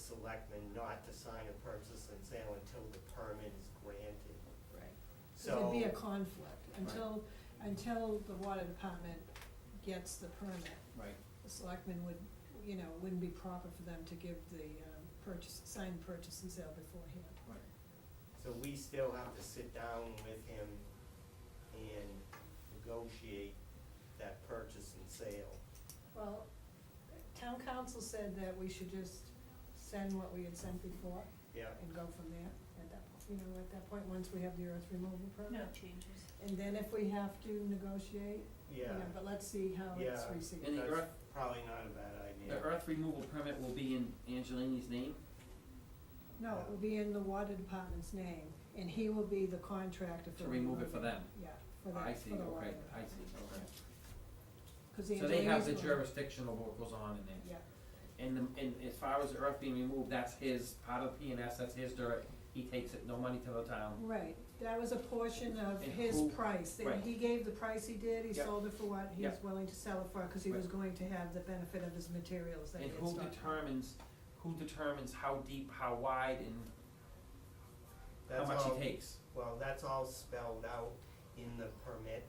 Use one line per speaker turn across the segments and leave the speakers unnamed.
selectmen not to sign a purchase and sale until the permit is granted.
Right.
So.
It'd be a conflict until, until the water department gets the permit.
Right,
The selectmen would, you know, wouldn't be proper for them to give the um, purchase, signed purchase and sale beforehand.
right.
So we still have to sit down with him and negotiate that purchase and sale.
Well, town council said that we should just send what we had sent before
Yeah,
and go from there at that, po- you know, at that point, once we have the earth removal permit.
No changes.
And then if we have to negotiate, you
yeah,
know, but let's see how it's
Yeah.
received.
And the
that's
earth-
probably not a bad idea.
The earth removal permit will be in Angelini's name?
No, it will be in the water department's name, and he will be the contractor for.
To remove it for them?
Yeah, for the,
I see,
for the water.
okay, I see, okay.
Cause the
So they have the
engineers will-
jurisdiction of what goes on in there?
Yeah,
And the, and as far as the earth being removed, that's his, part of P and S, that's his dirt, he takes it, no money to the town.
right, that was a portion of
And
his
who-
price, and
right.
he gave the price he did, he
Yep.
sold it for what he was
Yep.
willing to sell it for, cause he
Right.
was going to have the benefit of his materials that he
And
had
who
stocked.
determines, who determines how deep, how wide, and how
That's
much
all-
he takes?
Well, that's all spelled out in the permit.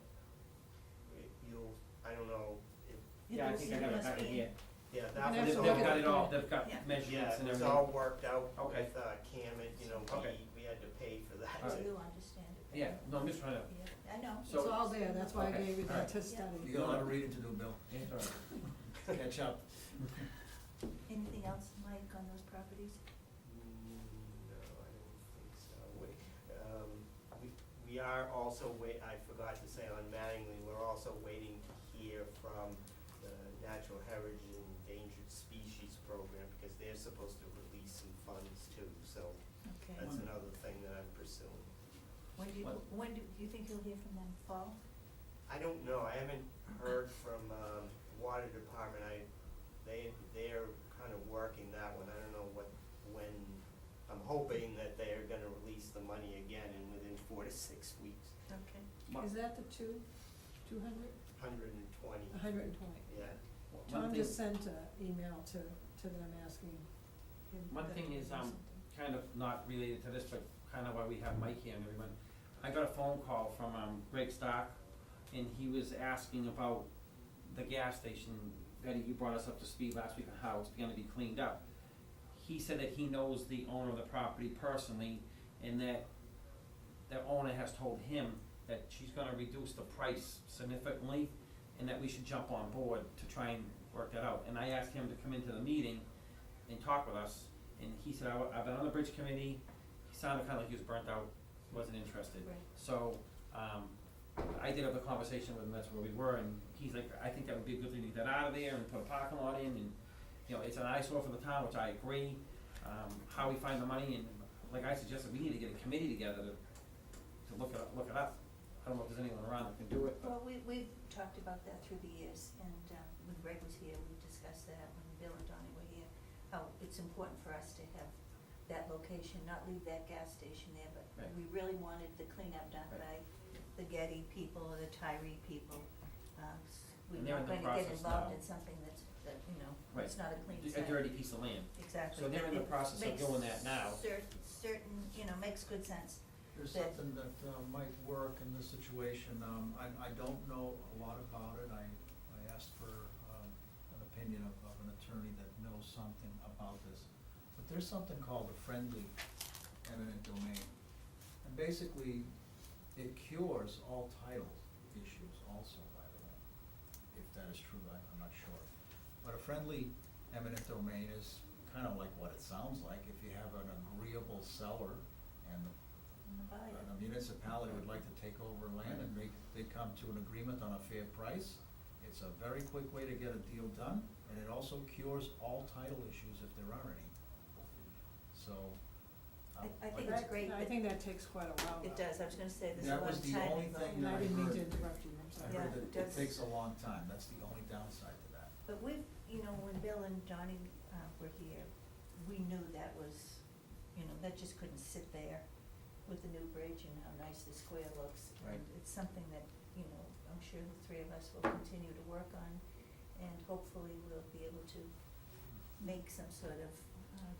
It- You'll, I don't know, if,
Yeah, I think I got it back in here.
yeah,
And
that was
that's
They've,
all.
all
they've got it all,
good.
they've got
Yeah.
measurements and
Yeah, it was
everything.
all worked out
Okay.
with, uh, Camet, you know,
Okay.
we, we had to pay for that.
All
So
right.
you'll understand it.
Yeah, no, I'm just trying to,
Yeah, I know.
It's
So-
all there, that's why I
Okay,
gave you that
alright.
to study.
You got a lot of reading to do, Bill.
yeah, it's all right.
Catch up.
Anything else, Mike, on those properties?
Mm, No, I don't think so. We, um, we, we are also wait, I forgot to say on Mattingly, we're also waiting to hear from the Natural Heritage and Endangered Species Program because they're supposed to release some funds too, so
Okay.
that's another thing that I'm pursuing.
When do you,
What?
when do you think you'll hear from them? Fall?
I don't know, I haven't heard from, um, Water Department, I, they, they're kind of working that one, I don't know what, when, I'm hoping that they are gonna release the money again in within four to six weeks,
Okay.
My-
Is that the two, two hundred,
hundred and twenty,
a hundred and twenty?
yeah.
one
Tom
thing-
just sent an email to, to them asking him.
One
that
thing
they
is,
do
um,
something.
kind of not related to this, but kind of why we have Mike here and everyone. I got a phone call from um, Greg Stock, and he was asking about the gas station. Betty, you brought us up to speed last week on how it's gonna be cleaned up. He said that he knows the owner of the property personally, and that the owner has told him that she's gonna reduce the price significantly, and that we should jump on board to try and work that out. And I asked him to come into the meeting and talk with us, and he said, "I- I've been on the bridge committee, he sounded kinda like he was burnt out, wasn't interested.
Right.
So, um, I did have a conversation with him, that's where we were, and he's like, I think that would be a good thing to get out of there and put a parking lot in, and, you know, it's an eyesore for the town, which I agree. Um, how we find the money, and like I suggested, we need to get a committee together to, to look it up, look it up. I don't know if there's anyone around that can do it, but,
Well, we, we've talked about that through the years, and um, when Greg was here, we discussed that, when Bill and Donnie were here, how it's important for us to have that location, not leave that gas station there, but
Right.
we really wanted the cleanup done by the Getty people or the Tyree people. Um, s-
And
We're
they're in
not
the
gonna get
process
involved
now.
in something that's, that, you know,
Right.
it's not a clean
a
site.
dirty piece of land.
Exactly.
So they're in the
It
process of
makes
doing that now.
cer- certain, you know, makes good sense.
There's
That-
something that uh, might work in this situation. Um, I, I don't know a lot about it. I, I asked for, um, an opinion of, of an attorney that knows something about this. But there's something called a friendly eminent domain. And basically, it cures all title issues also, by the way. If that is true, I, I'm not sure. But a friendly eminent domain is kind of like what it sounds like. If you have an agreeable seller and the
in the bio.
and the municipality would like to take over land and they, they come to an agreement on a fair price. It's a very quick way to get a deal done, and it also cures all title issues if there are any. So. um,
I- I think
like-
it's great
I
that-
think that takes quite a while.
It
though.
does, I was gonna say, there's a
That
lot
was
of
the
time
only
involved.
thing
And
that
I didn't mean to
heard.
interrupt you, I'm sorry.
I
Yeah,
heard
it
that it
does.
takes a long time, that's the only downside to that.
But we've, you know, when Bill and Donnie, uh, were here, we knew that was, you know, that just couldn't sit there with the new bridge and how nice the square looks.
Right.
And it's something that, you know, I'm sure the three of us will continue to work on, and hopefully we'll be able to make some sort of uh,